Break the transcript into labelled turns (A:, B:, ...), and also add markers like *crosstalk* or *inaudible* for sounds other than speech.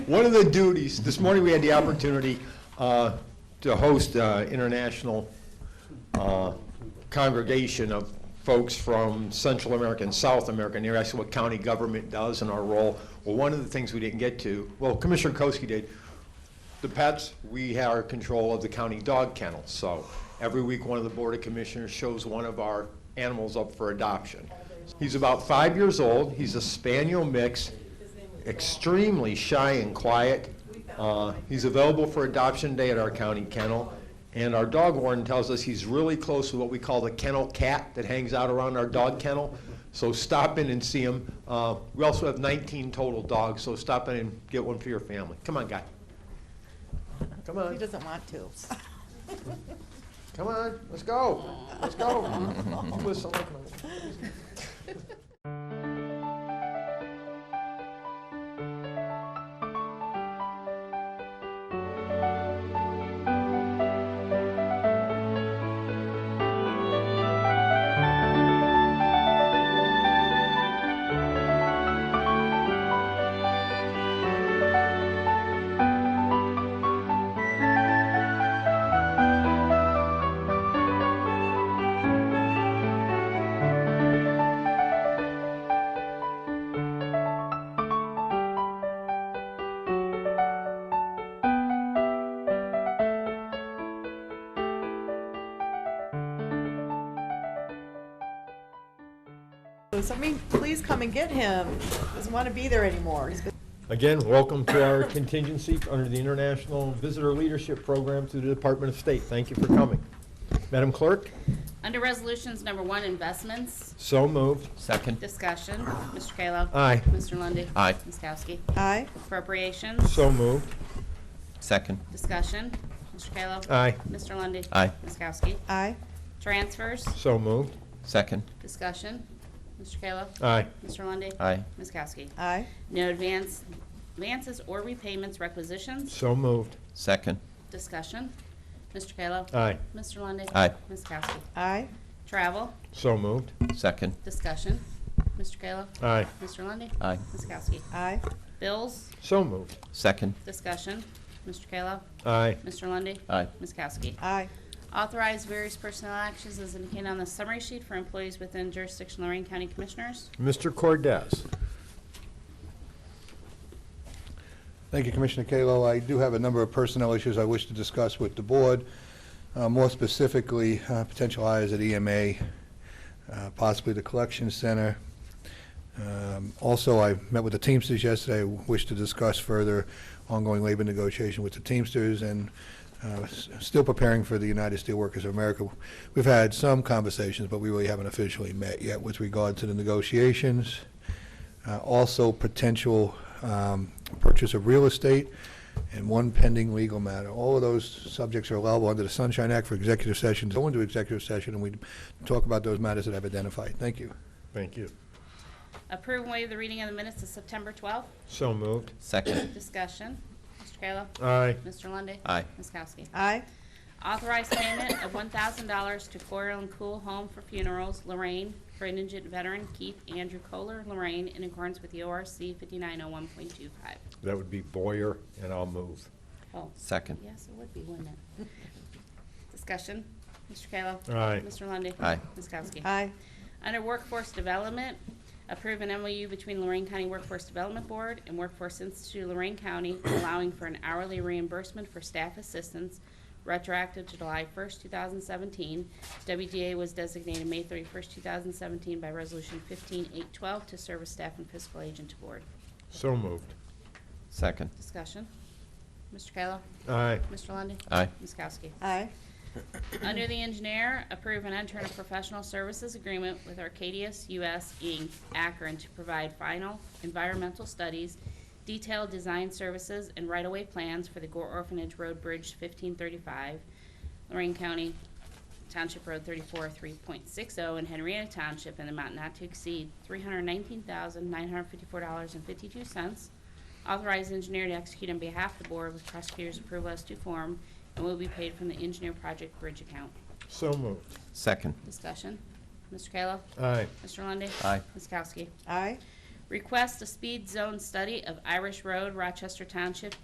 A: One of the duties, this morning we had the opportunity uh, to host uh, international uh, congregation of folks from Central America and South America, and they asked what county government does and our role. Well, one of the things we didn't get to, well, Commissioner Koski did, the pets, we have control of the county dog kennel, so every week, one of the Board of Commissioners shows one of our animals up for adoption. He's about five years old, he's a spaniel mix, extremely shy and quiet. Uh, He's available for adoption day at our county kennel, and our dog warden tells us he's really close to what we call the kennel cat that hangs out around our dog kennel, so stop in and see him. Uh, We also have 19 total dogs, so stop in and get one for your family. Come on, guy. Come
B: He
A: on,
B: doesn't want to.
A: come on, let's go, let's go. Listen, look, man.
B: So Somebody please come and get him. He Doesn't want to be there anymore. He's been-
A: Again, welcome to our contingency under the International Visitor Leadership Program through the Department of State. Thank you for coming. Madam Clerk,
C: Under Resolutions Number One, Investments,
A: so moved.
D: Second.
C: Discussion, Mr. Kayla.
A: Aye.
C: Mr. Lundy.
D: Aye.
C: Ms. Kowski.
B: Aye,
C: Appropriations,
A: So moved.
D: Second.
C: Discussion, Mr. Kayla.
A: Aye.
C: Mr. Lundy.
D: Aye.
C: Ms. Kowski.
B: aye,
C: Transfers,
A: So moved.
D: Second.
C: Discussion, Mr. Kayla.
A: Aye.
C: Mr. Lundy.
D: Aye.
C: Ms. Kowski.
B: aye,
C: No advance, advances or repayments requisitions,
A: So moved.
D: Second.
C: Discussion, Mr. Kayla.
A: Aye.
C: Mr. Lundy.
D: Aye.
C: Ms. Kowski.
B: aye,
C: Travel,
A: So moved.
D: Second.
C: Discussion, Mr. Kayla.
A: Aye.
C: Mr. Lundy.
D: Aye.
C: Ms. Kowski.
B: aye,
C: Bills,
A: So moved.
D: Second.
C: Discussion, Mr. Kayla.
A: Aye.
C: Mr. Lundy,
D: Aye.
C: Ms. Kowski.
B: aye,
C: Authorize various personnel actions as indicated on the summary sheet for employees within jurisdiction Lorraine County Commissioners.
A: Mr. Cordez.
E: Thank you, Commissioner Kalo. I do have a number of personnel issues I wish to discuss with the board, Uh, more specifically, uh, potential hires at EMA, uh, possibly the collection center. Um, Also, I met with the Teamsters yesterday, I wish to discuss further ongoing labor negotiation with the Teamsters and uh, s- still preparing for the United Steelworkers of America. We've had some conversations, but we really haven't officially met yet with regard to the negotiations. Uh, Also, potential um, purchase of real estate, and one pending legal matter. All of those subjects are allowable under the Sunshine Act for executive sessions. Go into executive session, and we talk about those matters that I've identified. Thank you.
A: Thank you.
C: Approve and waive the reading of the minutes of September 12th.
A: So moved.
D: Second.
C: Discussion, Mr. Kayla.
A: Aye.
C: Mr. Lundy,
D: Aye.
C: Ms. Kowski.
B: aye,
C: Authorize payment of $1,000 to Coral and Cool Home for Funerals, Lorraine, for indigent veteran Keith Andrew Kohler, Lorraine, in accordance with E the ORC 5901.25.
A: That would be Boyer, and I'll move.
C: Oh,
D: Second.
C: Yes, it would be, wouldn't it? *laughs* Discussion, Mr. Kayla.
A: Aye.
C: Mr. Lundy,
D: Aye.
C: Ms. Kowski.
B: aye,
C: Under Workforce Development, approve an MOU between Lorraine County Workforce Development Board and Workforce Institute of Lorraine County allowing for an hourly reimbursement for staff assistance retroactive to July 1st, 2017. WDA was designated May 31st, 2017 by Resolution 15812 to serve as staff and fiscal agent to board.
A: So moved.
D: Second.
C: Discussion. Mr. Kayla.
A: Aye.
C: Mr. Lundy,
D: Aye.
C: Ms. Kowski.
B: aye,
C: Under the engineer, approve and enter a professional services agreement with Arcadius US Inc., Akron, to provide final environmental studies, detailed design services, and right-of-way plans for the Gore Orphanage Road Bridge 1535, Lorraine County Township Road 34, 3.60, and oh Henrietta Township, in an amount not to exceed $319,954.52. Authorized engineer to execute on behalf of the board with prosecutor's approval as to form and will be paid from the engineer project bridge account.
A: So moved.
D: Second.
C: Discussion. Mr. Kayla.
A: Aye.
C: Mr. Lundy,
D: Aye.
C: Ms. Kowski.
B: aye,
C: Request a speed zone study of Irish Road, Rochester Township,